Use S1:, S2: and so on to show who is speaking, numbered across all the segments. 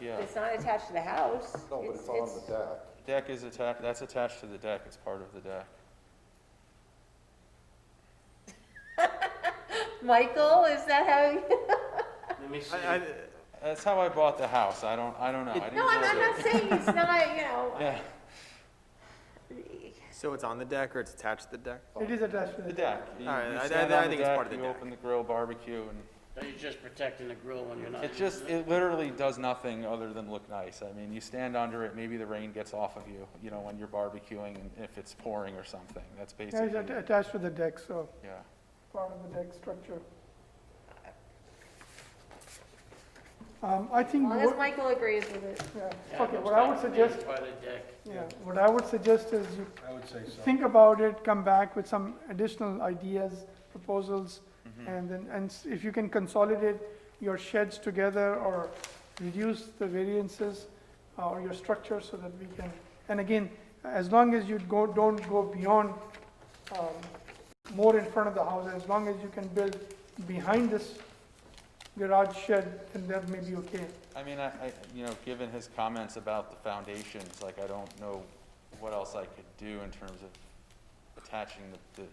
S1: yeah.
S2: It's not attached to the house.
S3: No, but it's on the deck.
S1: Deck is attached, that's attached to the deck, it's part of the deck.
S2: Michael, is that how?
S4: Let me see.
S1: I, I, that's how I bought the house, I don't, I don't know. I didn't
S2: No, I'm,
S1: build
S2: I'm
S1: it.
S2: not saying it's not, you know.
S1: Yeah,
S5: So it's on the deck or it's attached to the deck?
S6: It is attached to
S1: the
S6: the
S1: deck. You-
S5: All right,
S1: you
S5: I- I-
S1: stand
S5: I
S1: on the
S5: think it's
S1: deck,
S5: part of the
S1: You
S5: deck.
S1: open the grill barbecue and
S4: So you're just protecting the grill when you're not.
S1: it just,
S4: using
S1: it literally does nothing other than look nice. I mean, you stand under it, maybe the rain gets off of you, you know, when you're barbecuing and if it's pouring or something, that's
S6: Yeah, it's
S1: basically,
S6: atta- attached to the deck, so
S1: yeah.
S6: part of the deck structure. Um, I
S2: As
S6: think,
S2: long as
S6: what-
S2: Michael agrees with it.
S6: yeah,
S4: Yeah, it
S6: okay,
S4: looks
S6: what I would
S4: like it's
S6: suggest,
S4: By the deck.
S6: yeah, what I would suggest is you
S3: I would say so.
S6: think about it, come back with some additional ideas, proposals,
S3: Mm-hmm.
S6: and then, and s- if you can consolidate your sheds together or reduce the variances uh, or your structure so that we can, and again, as long as you go, don't go beyond, um, more in front of the house, as long as you can build behind this garage shed, then that may be okay.
S1: I mean, I, I, you know, given his comments about the foundations, like, I don't know what else I could do in terms of attaching the, the,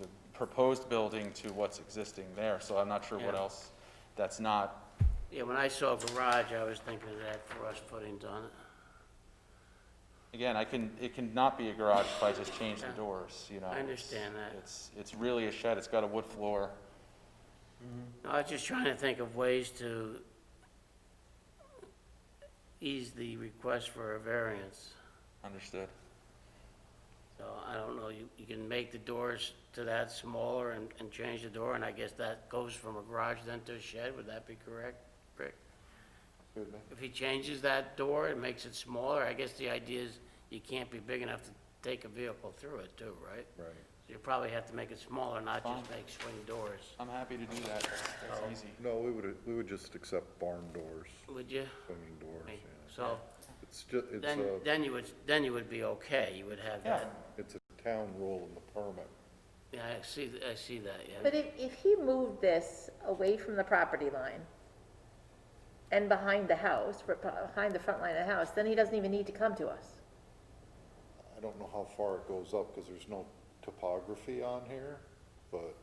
S1: the proposed building to what's existing there, so I'm not sure what
S4: Yeah.
S1: else that's not,
S4: Yeah, when I saw garage, I was thinking of that frost footings on it.
S1: again, I can, it can not be a garage if I just change the
S4: Yeah.
S1: doors, you know?
S4: I
S1: it's-
S4: understand that.
S1: It's, it's really a shed, it's got a wood floor.
S4: No, I was just trying to think of ways to ease the request for a variance.
S1: Understood.
S4: So I don't know, you, you can make the doors to that smaller and, and change the door, and I guess that goes from a garage then to a shed, would that be correct, Rick? If he changes that door and makes it smaller, I guess the idea is you can't be big enough to take a vehicle through it too, right?
S3: Right.
S4: So you probably have to make it smaller, not just make swing doors,
S1: I'm happy to do that, that's
S4: Oh.
S1: that's easy.
S3: No, we would, we would just accept barn doors,
S4: would you?
S3: swinging doors,
S4: I mean,
S3: yeah.
S4: So,
S3: It's just, it's
S4: then,
S3: a,
S4: then you would, then you would be okay, you would have
S1: Yeah.
S4: that,
S3: it's a town rule in the permit.
S4: yeah, I see, th- I see that, yeah.
S2: But if, if he moved this away from the property line and behind the house, re- behind the front line of the house, then he doesn't even need to come to us.
S3: I don't know how far it goes up, because there's no topography on here, but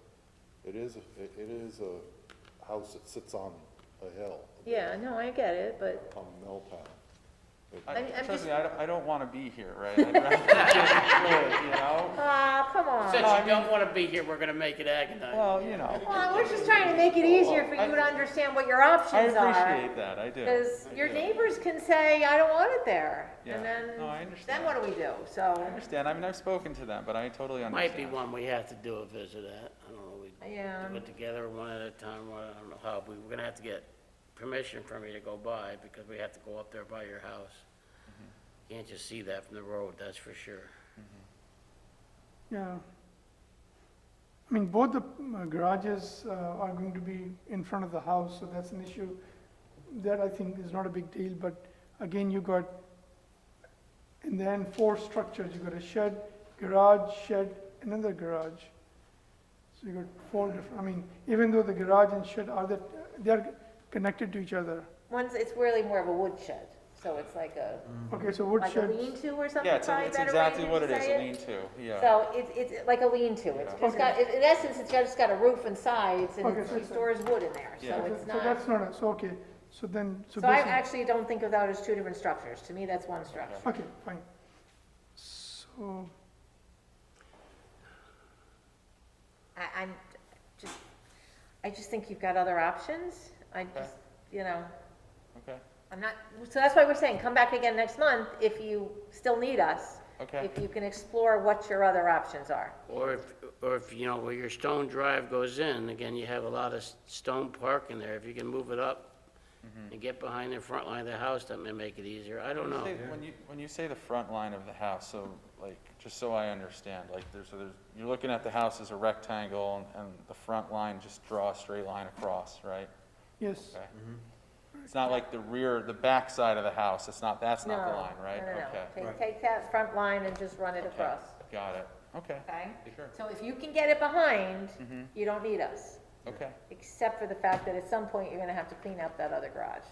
S3: it is, a- it it is a house that sits on a hill.
S2: Yeah, no, I get it, but
S3: On Milltown.
S1: I-
S2: I'm- I'm
S1: Trust
S2: just-
S1: me, I don't, I don't wanna be here, right? I'd rather just do it, you know?
S2: Aw, ah, come on.
S4: Since you don't wanna be here, we're gonna make it agonizing.
S1: Well, you know,
S2: Well, we're just trying to make it easier for
S1: I-
S2: you to understand what your
S1: I
S2: options are.
S1: appreciate that, I do.
S2: Because
S1: I
S2: your
S1: do.
S2: neighbors can say, I don't want it there.
S1: Yeah.
S2: And then,
S1: No, I
S2: then
S1: understand.
S2: what do we do? So,
S1: I understand, I mean, I've spoken to them, but I totally understand.
S4: Might be one we have to do a visit at, I don't know, we
S2: yeah,
S4: do it together, one at a time, or I don't know how, but we're gonna have to get permission from you to go by, because we have to go up there by your house. Can't just see that from the road, that's for sure.
S6: Yeah. I mean, both the uh, garages uh, are going to be in front of the house, so that's an issue. That I think is not a big deal, but again, you got, and then four structures, you got a shed, garage, shed, another garage. So you got four different, I mean, even though the garage and shed are that, they're connected to each other.
S2: once, it's really more of a woodshed. So it's like a,
S6: Okay, so wood
S2: like a
S6: sheds.
S2: lean-to or something,
S1: Yeah, it's,
S2: probably a
S1: it's
S2: better way
S1: exactly
S2: to
S1: what it is,
S2: say
S1: a lean-to, yeah.
S2: So it's, it's like a lean-to, it's just
S6: Okay.
S2: got, in in essence, it's just got a roof and sides, and
S6: Okay,
S2: it's-
S6: so
S2: she
S6: it's a-
S2: stores wood in there, so
S1: Yeah.
S2: it's
S6: So
S2: not.
S6: that's not, a- so, okay, so then, so
S2: So I
S6: basically.
S2: actually don't think of that as two different structures, to me, that's one structure.
S6: Okay, fine. So.
S2: I, I'm, just, I just think you've got other options, I just, you know,
S1: Okay,
S2: I'm not, so that's why we're saying, come back again next month if you still need us.
S1: Okay.
S2: If you can explore what your other options are.
S4: Or if, or if, you know, where your stone drive goes in, again, you have a lot of s- stone parking there, if you can move it up and get behind the front line of the house, that may make it easier, I don't know.
S1: Say- when you, when you say the front line of the house, so like, just so I understand, like, there's, so there's, you're looking at the house as a rectangle, and, and the front line, just draw a straight line across, right?
S6: Yes,
S1: Okay. It's not like the rear, the back side of the house, it's not, that's not the
S2: No,
S1: line, right?
S2: No, no,
S1: Okay.
S2: no, take, take that front line and just run it
S1: Okay,
S2: across,
S1: Got it, okay,
S2: okay?
S1: sure, Mm-hmm.
S2: So if you can get it behind, you don't need us,
S1: okay,
S2: except for the fact that at some point, you're gonna have to clean up that other garage.